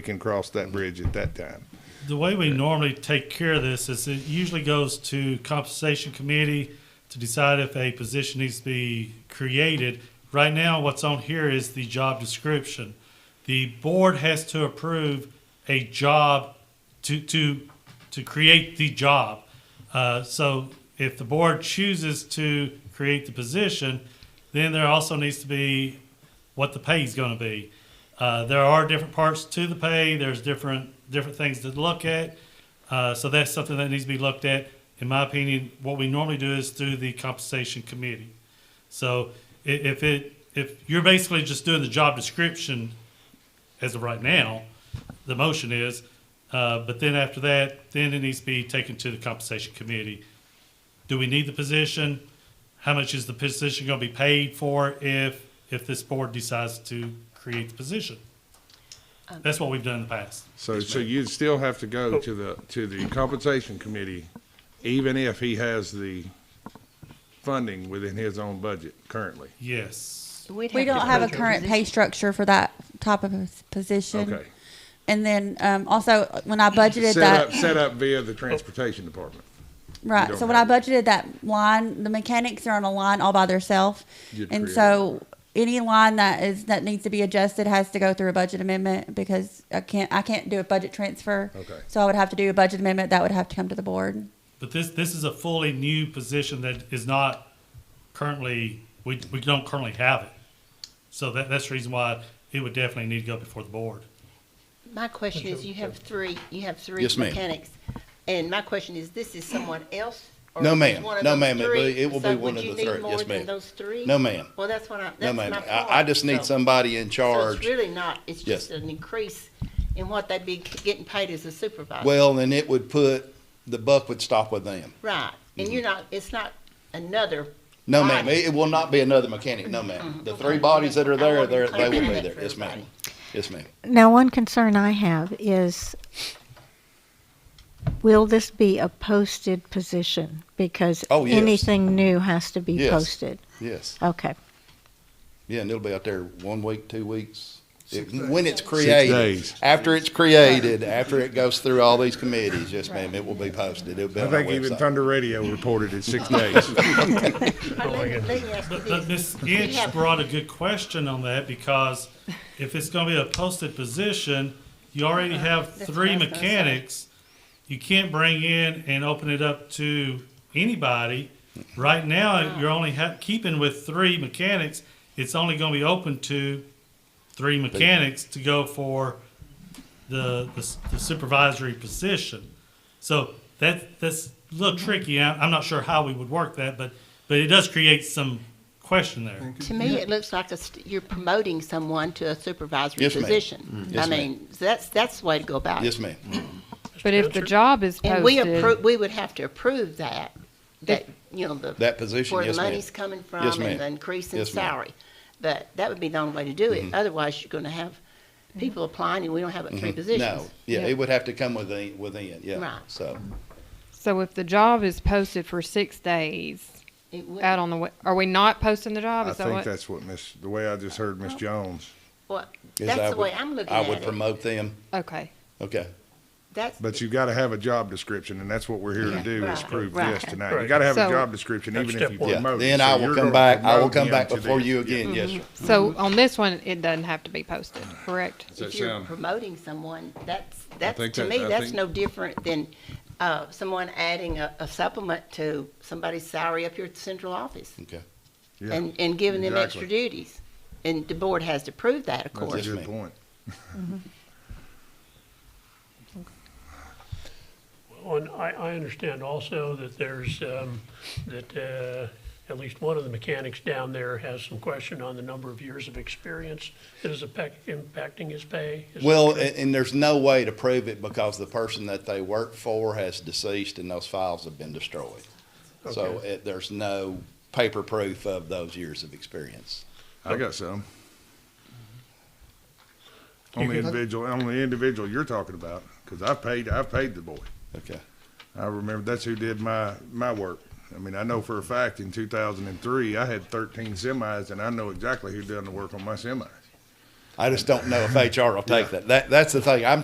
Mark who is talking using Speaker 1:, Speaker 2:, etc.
Speaker 1: can cross that bridge at that time.
Speaker 2: The way we normally take care of this is it usually goes to compensation committee to decide if a position needs to be created. Right now, what's on here is the job description. The board has to approve a job to, to, to create the job. Uh, so if the board chooses to create the position, then there also needs to be what the pay is going to be. Uh, there are different parts to the pay. There's different different things to look at. Uh, so that's something that needs to be looked at. In my opinion, what we normally do is through the compensation committee. So i- if it if you're basically just doing the job description as of right now, the motion is. Uh, but then after that, then it needs to be taken to the compensation committee. Do we need the position? How much is the position going to be paid for if if this board decides to create the position? That's what we've done in the past.
Speaker 1: So, so you'd still have to
Speaker 3: Oh.
Speaker 1: go to the, to the compensation committee, even if he has the funding within his own budget currently.
Speaker 2: Yes.
Speaker 4: We don't have a current pay structure for that type of pos- position.
Speaker 1: Okay.
Speaker 4: And then um, also when I budgeted
Speaker 1: Set up,
Speaker 4: that,
Speaker 1: set up via the transportation department.
Speaker 4: right?
Speaker 1: don't
Speaker 4: So when I
Speaker 1: have
Speaker 4: budgeted that line, the mechanics are on a line all by themselves,
Speaker 1: You'd
Speaker 4: and
Speaker 1: create
Speaker 4: so any line that is that needs to be adjusted has to go through a budget amendment because I can't I can't do a budget transfer.
Speaker 1: Okay.
Speaker 4: So I would have to do a budget amendment that would have to come to the board.
Speaker 2: But this, this is a fully new position that is not currently, we, we don't currently have it. So that, that's the reason why it would definitely need to go before the board.
Speaker 3: My question is, you have three, you have three
Speaker 5: Yes, ma'am.
Speaker 3: mechanics. And my question is, this is someone else? or
Speaker 5: No,
Speaker 3: is
Speaker 5: ma'am.
Speaker 3: one of
Speaker 5: No,
Speaker 3: those
Speaker 5: ma'am. It
Speaker 3: three?
Speaker 5: will- it will be
Speaker 3: So
Speaker 5: one of
Speaker 3: would
Speaker 5: the
Speaker 3: you need
Speaker 5: three.
Speaker 3: more
Speaker 5: Yes,
Speaker 3: than
Speaker 5: ma'am.
Speaker 3: Those three?
Speaker 5: No, ma'am.
Speaker 3: Well, that's what I,
Speaker 5: No,
Speaker 3: that's my
Speaker 5: ma'am.
Speaker 3: point.
Speaker 5: I, I just need
Speaker 3: So-
Speaker 5: somebody in
Speaker 3: So it's
Speaker 5: charge.
Speaker 3: really not, it's
Speaker 5: Yes.
Speaker 3: just an increase in what they'd be getting paid as a supervisor.
Speaker 5: Well, then it would put, the buck would stop with them.
Speaker 3: Right, and
Speaker 5: mm-hmm.
Speaker 3: you're not, it's not another.
Speaker 5: No, ma'am.
Speaker 3: body.
Speaker 5: It it will not be another mechanic. No,
Speaker 3: Mm-hmm.
Speaker 5: ma'am. The three bodies that are there, they're, they will be there. Yes, ma'am. Yes, ma'am.
Speaker 6: Now, one concern I have is, will this be a posted position? Because
Speaker 5: Oh, yes.
Speaker 6: anything new has to be
Speaker 5: Yes.
Speaker 6: posted.
Speaker 5: Yes.
Speaker 6: Okay.
Speaker 5: Yeah, and it'll be out there one week, two weeks. It- When it's
Speaker 1: days.
Speaker 5: created, after it's created, after it goes through all these committees, yes, ma'am, it will be posted. It'll be
Speaker 1: I
Speaker 5: on our
Speaker 1: think even
Speaker 5: website.
Speaker 1: Thunder Radio reported it six days.
Speaker 3: But Let me let me ask you
Speaker 2: But, but
Speaker 3: this.
Speaker 2: Ms. Inch brought a good question on that because if it's gonna be a posted position, you already have
Speaker 3: Uh-huh. That's
Speaker 2: three
Speaker 3: what I was gonna say.
Speaker 2: mechanics. You can't bring in and open it up to anybody. Right now, you're only ha- keeping with three mechanics. It's only gonna be open to three mechanics to go for the, the s- the supervisory position. So that that's a little tricky. I, I'm not sure how we would work that, but but it does create some question there.
Speaker 3: To me, it looks like a st- you're promoting someone to a supervisory
Speaker 5: Yes, ma'am. Mm-hmm.
Speaker 3: position. I
Speaker 5: Yes, ma'am.
Speaker 3: mean, that's, that's the way to go about it.
Speaker 5: Yes, ma'am.
Speaker 7: But if the job is
Speaker 3: And we
Speaker 7: posted,
Speaker 3: approve, we would have to approve that, that, you know, the.
Speaker 5: That position,
Speaker 3: Where
Speaker 5: yes,
Speaker 3: the
Speaker 5: ma'am.
Speaker 3: money's coming from
Speaker 5: Yes, ma'am.
Speaker 3: and the increase in
Speaker 5: Yes, ma'am. Mm-hmm.
Speaker 3: salary. But that would be the only way to do it. Otherwise, you're gonna have people applying and we don't have but three
Speaker 5: No,
Speaker 3: positions.
Speaker 5: yeah,
Speaker 7: Yeah.
Speaker 5: it would have to come within, within, yeah,
Speaker 3: Right.
Speaker 5: so.
Speaker 7: so if the job is posted for six days
Speaker 3: It would-
Speaker 7: out on the, we- are we not posting the job?
Speaker 1: I
Speaker 7: Is that
Speaker 1: think
Speaker 7: what?
Speaker 1: that's what Miss, the way I just heard
Speaker 3: Oh.
Speaker 1: Miss Jones.
Speaker 3: Well,
Speaker 5: yes,
Speaker 3: that's
Speaker 5: I
Speaker 3: the
Speaker 5: would-
Speaker 3: way I'm looking
Speaker 5: I
Speaker 3: at
Speaker 5: would
Speaker 3: it.
Speaker 5: promote them.
Speaker 7: Okay.
Speaker 5: Okay.
Speaker 3: That's,
Speaker 1: But you gotta have a job description, and that's what we're here to
Speaker 3: Yeah,
Speaker 1: do, is
Speaker 3: right,
Speaker 1: prove
Speaker 3: right.
Speaker 1: this tonight. You gotta have a
Speaker 7: So-
Speaker 1: job description, even if you
Speaker 5: Yeah,
Speaker 1: promote.
Speaker 5: then
Speaker 1: So
Speaker 5: I will
Speaker 1: you're
Speaker 5: come
Speaker 1: gonna
Speaker 5: back, I will
Speaker 1: promote
Speaker 5: come
Speaker 1: him
Speaker 5: back
Speaker 1: to
Speaker 5: before
Speaker 1: this. Mm-hmm.
Speaker 5: you again, yes, sir.
Speaker 1: Mhm.
Speaker 7: So on this one, it doesn't have to be posted, correct?
Speaker 1: Does that
Speaker 3: if you're
Speaker 1: sound-
Speaker 3: promoting someone, that's, that's,
Speaker 1: think
Speaker 3: to
Speaker 1: that-
Speaker 3: me,
Speaker 1: I
Speaker 3: that's
Speaker 1: think-
Speaker 3: no different than, uh, someone adding a, a supplement to somebody's salary up here at the central office.
Speaker 5: Okay.
Speaker 1: Yeah,
Speaker 3: and, and giving them
Speaker 1: exactly.
Speaker 3: extra duties. And the board has to prove that, of
Speaker 1: That's
Speaker 3: course.
Speaker 1: a good
Speaker 5: ma'am.
Speaker 1: point.
Speaker 8: And I, I understand also that there's, um, that, uh, at least one of the mechanics down there has some question on the number of years of experience that is affect- impacting his pay. Is that
Speaker 5: Well,
Speaker 8: true?
Speaker 5: and, and there's no way to prove it because the person that they work for has deceased and those files have been destroyed. So
Speaker 8: Okay.
Speaker 5: it, there's no paper proof of those years of experience.
Speaker 1: I got some. On the individual, on the individual you're talking about, because I paid, I paid the boy.
Speaker 5: Okay.
Speaker 1: I remember that's who did my, my work. I mean, I know for a fact in two thousand and three, I had thirteen semis and I know exactly who done the work on my semis.
Speaker 5: I just don't know if HR will take that. That, that's the thing. I'm